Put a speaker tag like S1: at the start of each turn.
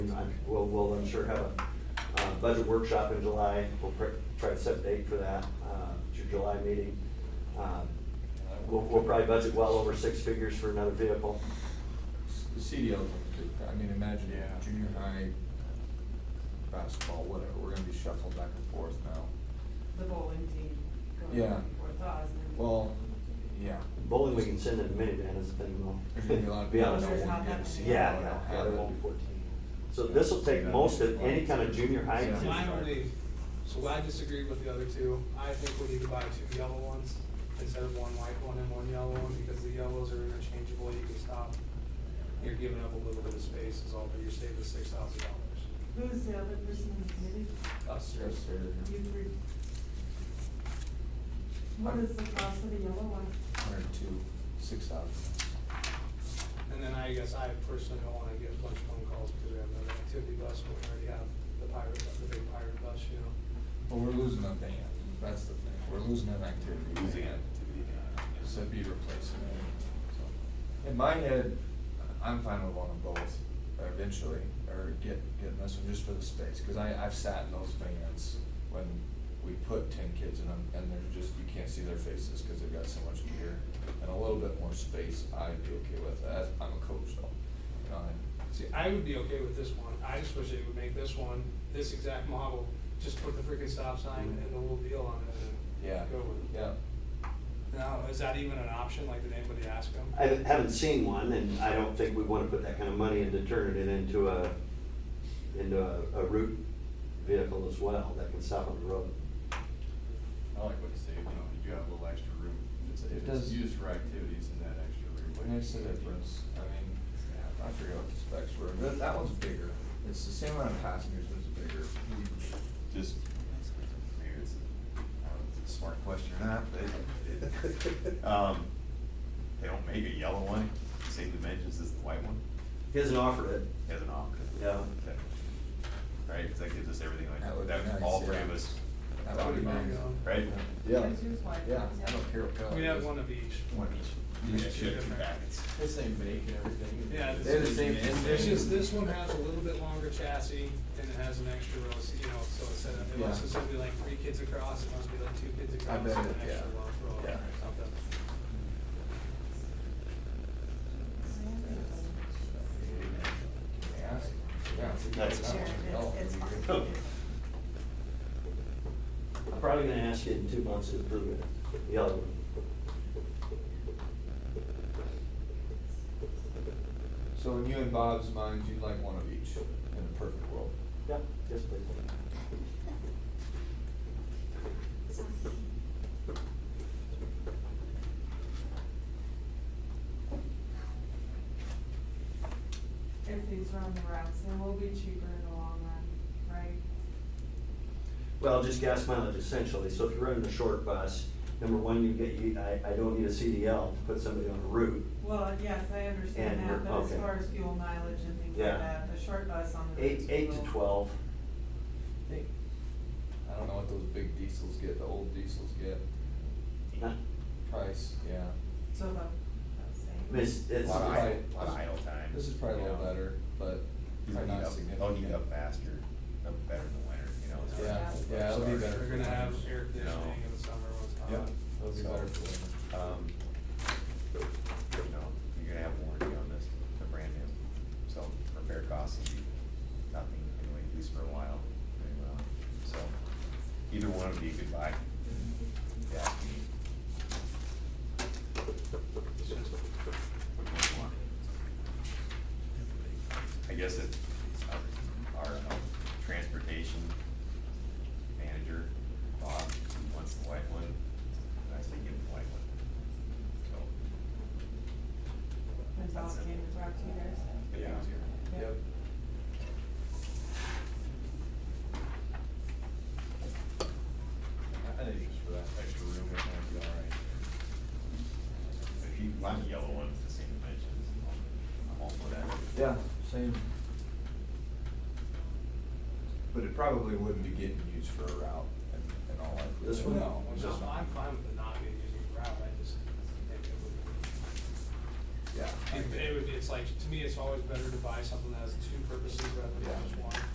S1: and we'll, we'll, I'm sure have a uh, budget workshop in July. We'll pr- try to set a date for that, uh, to your July meeting. Um, We'll, we'll probably budget well over six figures for another vehicle.
S2: The CDL, I mean, imagine
S3: Yeah.
S2: junior high basketball, whatever, we're gonna be shuffled back and forth now.
S4: The bowling team. going
S2: Yeah.
S4: Four thousand.
S2: Well, yeah,
S1: Bowling, we can send in a minivan as a thing, well.
S2: there's gonna be a lot of
S1: Be
S2: people
S1: honest
S2: that
S1: with
S2: don't
S1: you.
S2: wanna get a CDL.
S1: Yeah,
S2: or
S1: yeah,
S2: don't
S1: yeah,
S2: have
S1: there
S2: it.
S1: won't be fourteen. So this'll take most of any kind of junior high.
S2: Yeah.
S3: So
S5: My
S1: exam.
S5: only, so I disagree with the other two. I think we need to buy two yellow ones instead of one white one and one yellow one, because the yellows are interchangeable, you can stop. You're giving up a little bit of space is all, but you're saving six thousand dollars.
S4: Who's the other person in the committee?
S5: Us,
S2: Yes, sir.
S4: You three. What is the cost of the yellow one?
S2: Hundred and two, six thousand.
S5: And then I guess I personally don't wanna get a bunch of phone calls because we have another activity bus, but we already have the pirate, bus, the big pirate bus, you know.
S2: Well, we're losing a van, that's the thing, we're losing an activity.
S3: Losing
S2: van.
S3: activity van, yeah.
S2: So it'd be replacing it. So, In my head, I'm fine with one of both, uh, eventually, or get, getting this one just for the space, cause I, I've sat in those vans when we put ten kids in them, and they're just, you can't see their faces, cause they've got so much gear, and a little bit more space, I'd be okay with that, I'm a coach though, you know, I-
S5: See, I would be okay with this one, I just wish they would make this one, this exact model, just put the freaking stop sign and the whole deal on it
S2: yeah,
S5: and go with it.
S2: yeah.
S5: Now, is that even an option, like, did anybody ask them?
S1: I haven't- haven't seen one, and I don't think we wanna put that kind of money into turning it into a, into a, a route vehicle as well, that can stop on the road.
S3: I like what you say, you know, if you have a little extra room, if it's,
S2: It
S3: if it's
S2: does-
S3: used for activities in that extra room.
S2: It
S3: like-
S2: makes a difference, I mean, yeah, I forget what the specs were, that, that one's bigger, it's the same amount of passengers, but it's bigger.
S3: Just, maybe it's, I don't know if it's a smart question or not, but it, um, they don't make a yellow one, same dimensions as the white one,
S1: He hasn't offered it.
S3: as an option.
S1: Yeah.
S3: Okay. Right, cause that gives us everything
S2: That would
S3: like,
S2: be
S3: that,
S2: nice,
S3: all three
S2: yeah.
S3: of us,
S2: That would be
S5: Pretty
S2: nice.
S5: big,
S3: right?
S2: Yeah,
S4: Yours is white,
S2: yeah,
S4: yeah.
S2: I don't care what color.
S5: We
S2: it
S5: have
S2: is.
S5: one of each.
S2: One each.
S3: Yeah,
S2: Each
S3: should
S2: different.
S3: packets.
S6: The same make and everything.
S5: Yeah,
S2: They're the same
S5: It's
S2: engine.
S5: just, this one has a little bit longer chassis and it has an extra row, so, you know, so instead of,
S2: Yeah.
S5: unless it's gonna be like three kids across, it must be like two kids across
S2: I
S5: and
S2: bet
S5: an
S2: it-
S5: extra
S2: yeah.
S5: long row
S2: Yeah.
S5: or something.
S2: Yeah, it's- yeah, it's a
S1: That's
S2: good
S1: a-
S2: color. Oh,
S7: It's
S2: it'd be
S7: fine.
S2: good.
S1: I'm probably gonna ask you in two months to approve it, the other one.
S2: So in you and Bob's minds, you'd like one of each in a perfect world.
S1: Yeah, yes, please.
S4: If these run the routes, then we'll be cheaper in the long run, right?
S1: Well, just gas mileage essentially, so if you're running a short bus, number one, you get, you, I, I don't need a CDL to put somebody on a route.
S4: Well, yes, I understand
S1: And
S4: that,
S1: we're-
S4: but as
S1: okay.
S4: far as fuel mileage and things
S1: Yeah.
S4: like that, the short bus on the.
S1: Eight, eight to
S4: roads will-
S1: twelve,
S2: Hey, I don't know what those big diesels get, the old diesels get,
S1: not,
S2: price, yeah.
S4: So the, that's saying.
S1: it's,
S2: A
S1: it's.
S2: lot of
S3: idle-
S2: idle-
S3: lot of idle time,
S2: This is probably a
S3: you
S2: little
S3: know.
S2: better, but
S3: They'll
S2: probably
S3: need
S2: not
S3: up,
S2: significant.
S3: they'll need up faster, up better than winter, you know? it's hard.
S2: Yeah, yeah, it'll be better.
S5: We're gonna have air
S3: You know.
S5: conditioning in the summer when it's hot.
S3: Yeah.
S2: That'll be
S3: So-
S2: better for them.
S3: Uh-huh. Um, you know, you're gonna have warranty on this, the brand new, so repair costs will be nothing, anyway, at least for a while, very well, so. Either one would be a good buy. Yeah. I guess if our, our um, transportation manager, Bob, wants the white one, then I say give him the white one. So,
S4: When Bob came to talk to you guys.
S3: it
S2: Yeah.
S3: was here.
S4: Yeah.
S2: Yep. I think just for that extra room, it might be all right.
S3: If you want a yellow one, it's the same dimensions, I'm all for that.
S2: Yeah, same. But it probably wouldn't be getting used for a route and, and all that.
S1: This one?
S2: No.
S5: Which
S2: just
S5: is, I'm fine with it not being used as a route, I just think it would be.
S2: Yeah.
S5: It it would, it's like, to me, it's always better to buy something that has two purposes rather than
S2: Yeah.